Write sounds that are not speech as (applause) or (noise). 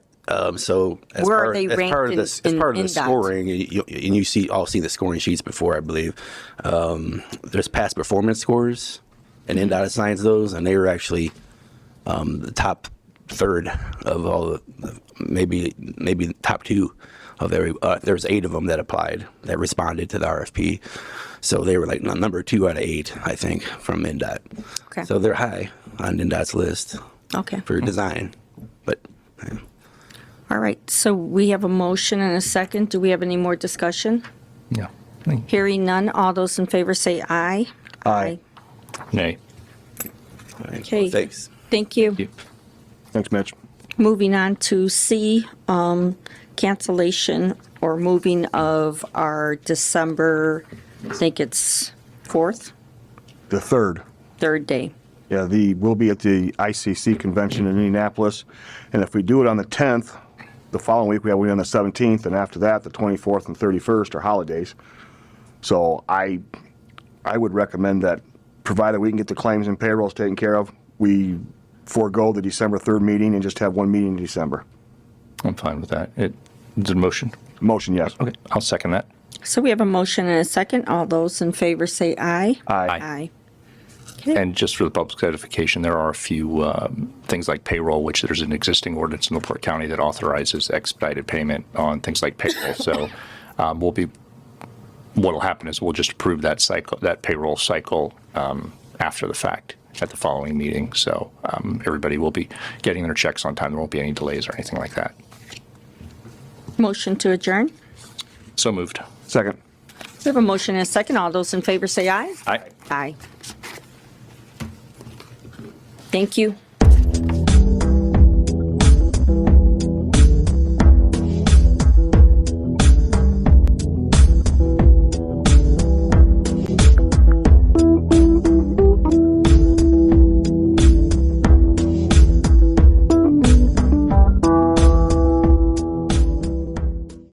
Um, so as Where are part, they as ranked part of in- the as in- part of in the that? scoring, and you, and you see all seen the scoring sheets before, I believe. Um, there's past performance scores, and Mm-hmm. NDOT assigns those, and they were actually um, the top third of all the maybe maybe the top two of every. Uh, there was eight of them that applied that responded to the RFP, so they were like num- number two out of eight, I think, from NDOT. Okay. So they're high on NDOT's list Okay. for design, but. yeah. All right. So we have a motion and a second. Do we have any more discussion? Yeah. Hearing none. All those in favor say aye. Aye. Nay. All right. Okay. Thanks. Thank you. Thanks, Mitch. Moving on to C, um, cancellation or moving of our December, I think it's fourth, The third. third day. Yeah, the, we'll be at the ICC convention in Indianapolis, and if we do it on the 10th, the following week, we have, we're on the 17th, and after that, the 24th and 31st are holidays. So I, I would recommend that, provided we can get the claims and payrolls taken care of, we forego the December 3rd meeting and just have one meeting in December. I'm fine with that. It, it's a motion. Motion, yes. Okay. I'll second that. So we have a motion and a second. All those in favor say aye. Aye. Aye. And just for the public's edification, there are a few um, things like payroll, which there's an existing ordinance in LaPorte County that authorizes expedited payment on things like payroll. (laughs) So um, we'll be, what'll happen is we'll just approve that cycle, that payroll cycle um, after the fact at the following meeting. So um, everybody will be getting their checks on time. There won't be any delays or anything like that. Motion to adjourn. So moved. Second. We have a motion and a second. All those in favor say aye. Aye. Aye. Thank you.